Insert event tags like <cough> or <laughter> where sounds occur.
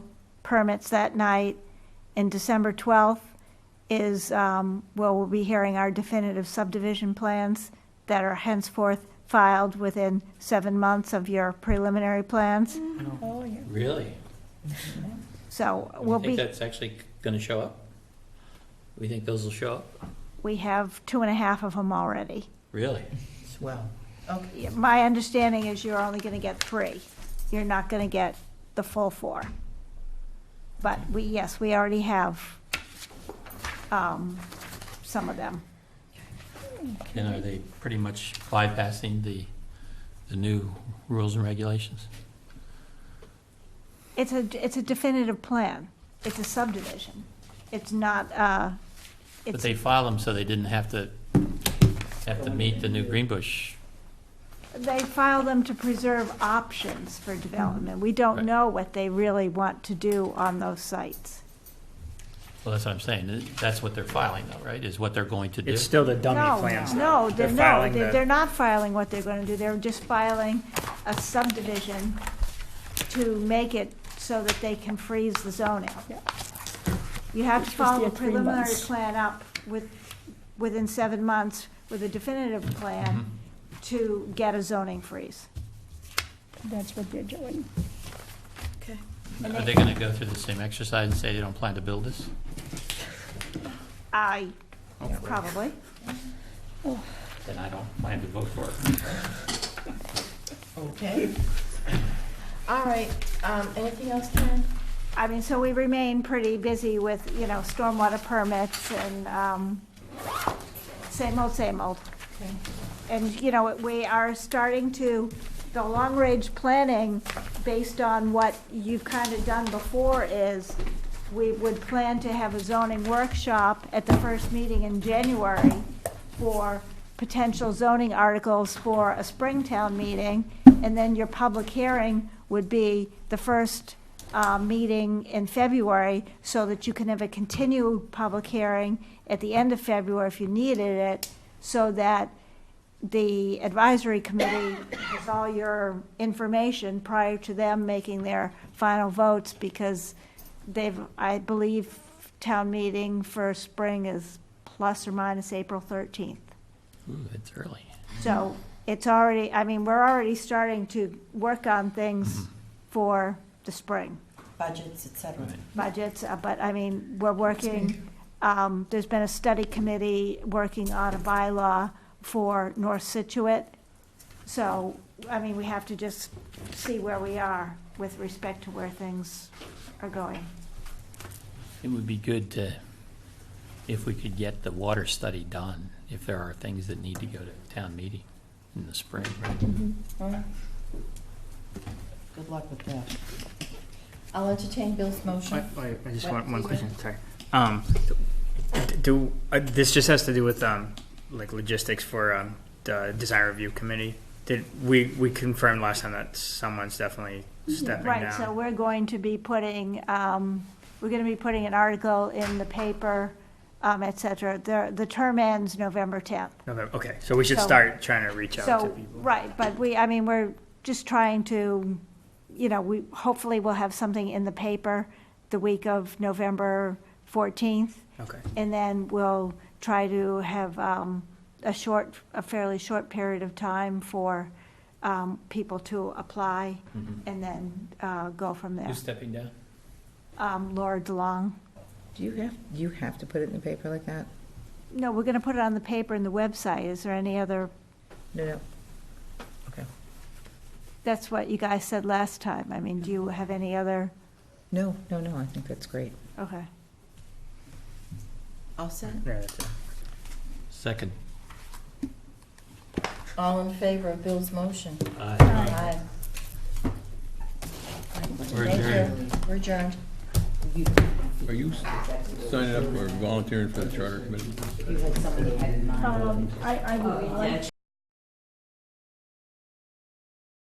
permits that night, and December 12th is, um, well, we'll be hearing our definitive subdivision plans that are henceforth filed within seven months of your preliminary plans. Oh, Oh, Really? So Do we'll you be. Mm-hmm. think that's actually going to show up? We think those will show up? We have two and a half of them already. Really? Swell. Okay. My understanding is you're only going to get three. You're not going to get the full four. But we, yes, we already have um, some of them. And are they pretty much bypassing the, the new rules and regulations? It's a, it's a definitive plan. It's a subdivision. It's not, uh, But it's, they filed them so they didn't have to, have to meet the new Greenbush. they file them to preserve options for development. We don't Right. know what they really want to do on those sites. Well, that's what I'm saying. That's what they're filing though, right? Is what they're going to do? It's still the dummy No, plans. No, though. they're, no, filing they're the- they're not filing what they're gonna do, they're just filing a subdivision to make it so that they can freeze the zoning. You have to Which was follow their a three preliminary months. plan up with, within seven months with a definitive plan Mm-hmm. to get a zoning freeze. That's what they're doing. And Are they- they going to go through the same exercise and say they don't plan to build this? I, probably. Then I don't plan to vote for it. Okay. <laughs> All right, um, anything else, Karen? I mean, so we remain pretty busy with, you know, stormwater permits and, um, same old, same old. Okay. And, you know, we are starting to, the long-range planning, based on what you've kind of done before, is we would plan to have a zoning workshop at the first meeting in January for potential zoning articles for a Springtown meeting, and then your public hearing would be the first uh, meeting in February, so that you can have a continued public hearing at the end of February if you needed it, so that the advisory committee has all your information prior to them making their final votes, because they've, I believe, town meeting for spring is plus or minus April thirteenth. Ooh, it's early. So it's already, I mean, we're already starting to work on things for the spring Budgets, et cetera. budgets, uh, but I mean, we're working, um, there's been a study committee working on a bylaw for North Situate. So, I mean, we have to just see where we are with respect to where things are going. It would be good to, if we could get the water study done, if there are things that need to go to town meeting in the spring, right? Good luck with that. I'll entertain Bill's motion. Wait, wait, I just What? want one Yeah. question, sorry. Um, do, uh, this just has to do with, um, like logistics for, um, the design review committee. Did, we, we confirmed last time that someone's definitely stepping Mm-hmm. Right, so down. we're going to be putting, um, we're gonna be putting an article in the paper, um, et cetera. The, the term ends November tenth. November, okay, so we should So- start trying to reach out to So, people. right, but we, I mean, we're just trying to, you know, we, hopefully we'll have something in the paper the week of November 14th, Okay, and then we'll try to have um, a short, a fairly short period of time for um, people to apply, and then uh, go from there. Who's stepping down? Um, Laura DeLong, Do you have, do you have to put it in the paper like that? no, we're going to put it on the paper and the website, is there any other, No, no. that's what you guys said last time, I mean, do you have any other, No, no, no, I think that's great. okay. All set? yeah, that's it. Second. All in favor of Bill's motion? Aye. Aye. We're Thank you. adjourned. We're adjourned. Are you signing up or volunteering for the charter committee? Um, I, I would like